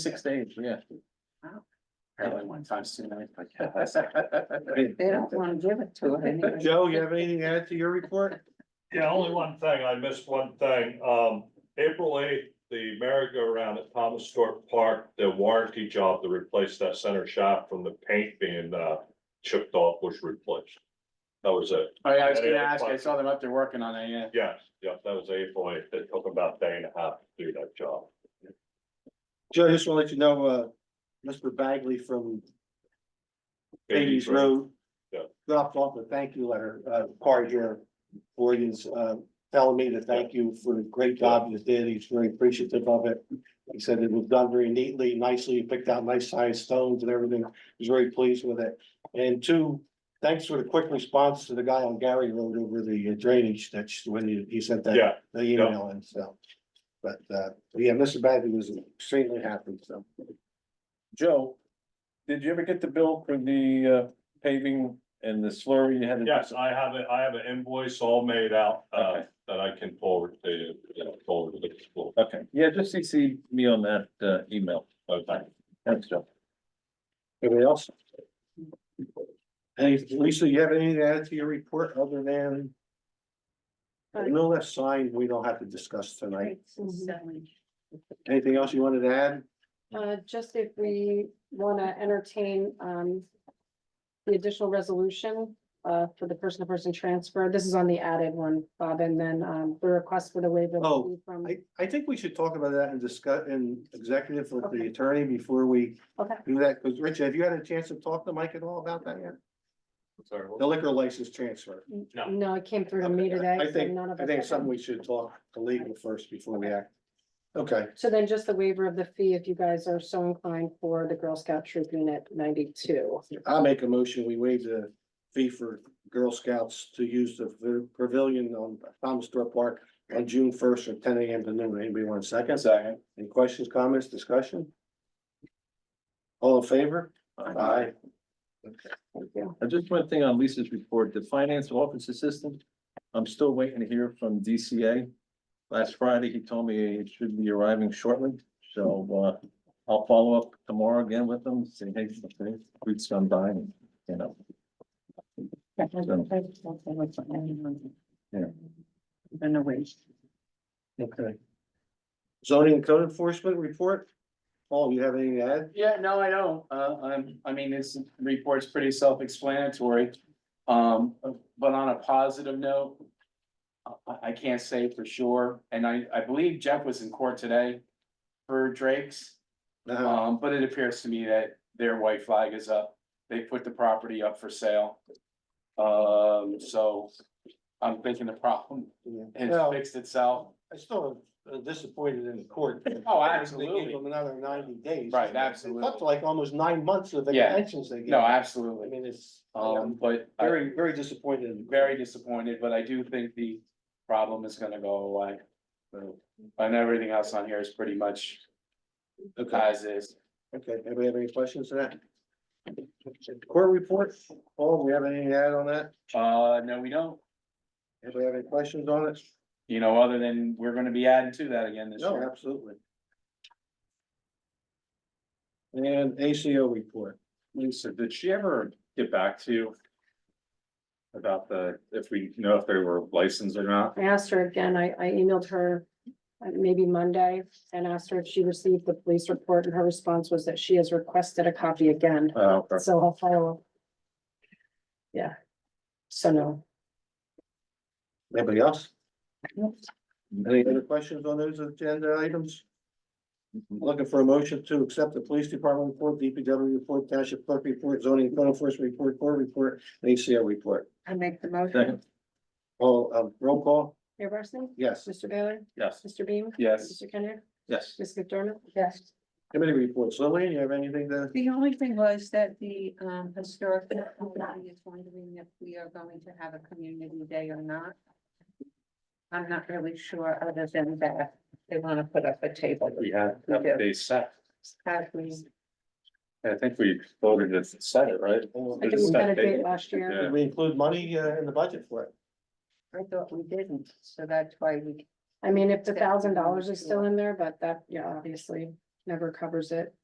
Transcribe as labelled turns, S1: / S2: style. S1: Six days, yeah.
S2: Wow.
S1: Apparently one time's too many. but-
S2: They don't wanna give it to her anyway.
S3: Joe, you have anything to add to your report?
S4: Yeah, only one thing, I missed one thing, um, April eighth, the merry-go-round at Thomas Stewart Park, the warranty job to replace that center shop from the paint being, uh, chipped off was replaced. That was it,
S1: Oh, yeah, I was gonna ask, I saw them up there working on it, yeah.
S4: yes, yes, that was April eighth, it took about a day and a half to do that job.
S3: Joe, just want to let you know, uh, Mr. Bagley from Bailey's Road.
S4: Yeah.
S3: Dropped off a thank you letter, uh, card here for you, uh, telling me to thank you for the great job you did. He's very appreciative of it. He said it was done very neatly, nicely, You picked out nice sized stones and everything. He's very pleased with it. And two, thanks for the quick response to the guy on Gary Road over the drainage that's when you, he sent that
S4: Yeah,
S3: the email and so. But uh, yeah, Mr. Bagley was extremely happy, so.
S5: Joe, did you ever get the bill for the uh, paving and the slurry you had? to-
S4: yes, I have it, I have an invoice all made out, uh,
S5: Okay.
S4: that I can forward to you, you know, forward to the school.
S5: Okay, yeah, just CC me on that uh, email. Okay. Thanks, Joe.
S3: Anybody else? Hey, Lisa, you have anything to add to your report other than? No left sign, we don't have to discuss tonight.
S1: Mm-hmm.
S3: Anything else you wanted to add?
S6: Uh, just if we wanna entertain, um. The additional resolution, uh, for the person-to-person transfer, this is on the added one, Bob, and then, um, the request for the waiver. of
S3: Oh,
S6: fee From,
S3: I I think we should talk about that and discuss in executive with the
S6: Okay.
S3: attorney before we
S6: okay,
S3: do that, because Rich, have you had a chance to talk to Mike at all about that yet?
S4: Sorry, what-
S3: The liquor license transfer.
S4: No.
S6: no, it came through to me today.
S3: I
S6: so
S3: think,
S6: none of
S3: I
S6: us-
S3: think it's
S6: okay.
S3: something we should talk to legal first before we act. Okay,
S6: So then just the waiver of the fee, if you guys are so inclined for the Girl Scout Troop Unit ninety-two.
S3: I'll make a motion. We waive the fee for Girl Scouts to use the pavilion on Thomas Stewart Park on June first from ten AM to noon. Anybody want a second? Second. Any questions, comments, discussion? All in favor? Aye.
S5: Uh, Just one thing on Lisa's report, the finance office assistant, I'm still waiting to hear from DCA. Last Friday, he told me it should be arriving shortly, so uh, I'll follow up tomorrow again with them, say, hey, something, weeks gone by, and, you know. Yeah.
S2: Been a waste.
S3: Okay. Zoning and code enforcement report? Paul, you have anything to add?
S1: Yeah, no, I don't. Uh, I'm, I mean, this report's pretty self-explanatory. Um, but on a positive note, I, I can't say for sure, and I, I believe Jeff was in court today for Drake's.
S3: Uh,
S1: Um, but it appears to me that their white flag is up. They put the property up for sale. Um, so I'm thinking the problem
S3: yeah.
S1: has
S3: Well,
S1: fixed itself.
S3: I still am uh, disappointed in the court.
S1: Oh,
S3: They gave
S1: absolutely.
S3: them another ninety days.
S1: Right,
S3: It took
S1: absolutely.
S3: like almost nine months of
S1: Yeah.
S3: extensions they gave.
S1: No,
S3: I
S1: absolutely.
S3: mean, it's,
S1: Um,
S3: um,
S1: but I'm
S3: very, very disappointed. in the court.
S1: very disappointed, but I do think the problem is gonna go away. So, And everything else on here is pretty much
S3: Okay,
S1: as is.
S3: okay. Anybody have any questions to that? Court report, Paul, we have anything to add on that?
S1: Uh, no, we don't.
S3: Anybody have any questions on it?
S1: You know, other than we're gonna be adding to that again this
S3: No,
S1: year.
S3: absolutely. And ACO report.
S5: Lisa, did she ever get back to you? About the, if we know if they were licensed or not?
S6: I asked her again, I, I emailed her uh, maybe Monday and asked her if she received the police report and her response was that she has requested a copy again.
S5: Oh, okay.
S6: So I'll follow. up. Yeah. So no,
S3: Anybody else? Any other questions on those agenda items? Looking for a motion to accept the police department report, DPW report, township clerk report, zoning and code enforcement report, court report, and ACO report.
S2: I make the motion.
S5: Second.
S3: Oh, um, roll call,
S6: Mayor Barsney?
S3: yes.
S6: Mr. Baylor?
S5: Yes,
S6: Mr. Beam?
S1: Yes,
S6: Mr. Kendrick?
S5: yes.
S6: Ms. McDermott?
S2: Yes.
S3: Committee reports, Lillian, you have anything to?
S2: The only thing was that the um historic committee is wondering if we are going to have a community day or not. I'm not really sure, other than that, they wanna put up a table.
S5: We have,
S2: We do.
S5: they set,
S2: Have we,
S5: I think we voted to set it, right?
S6: I think we had a date last year.
S3: Did we include money uh, in the budget for it?
S2: I thought we didn't, so that's why we
S6: I mean, if the thousand dollars is still in there, but that, yeah, obviously, never covers it.